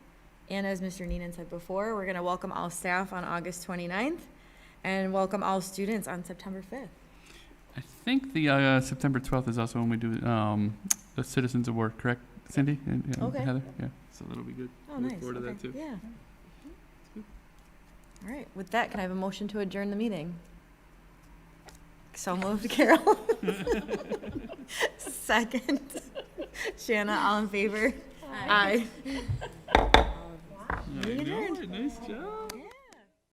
And as Mr. Neenan said before, we're going to welcome all staff on August 29th and welcome all students on September 5th. I think the uh, September 12th is also when we do um, the Citizens Award, correct, Cindy and and Okay. Heather? Yeah, so that'll be good. Oh, Look nice. forward to that, Okay. too. Yeah. All right, with that, can I have a motion to adjourn the meeting? So moved, Carol. Second. Shanna, all in favor? Aye. I know it. Nice job.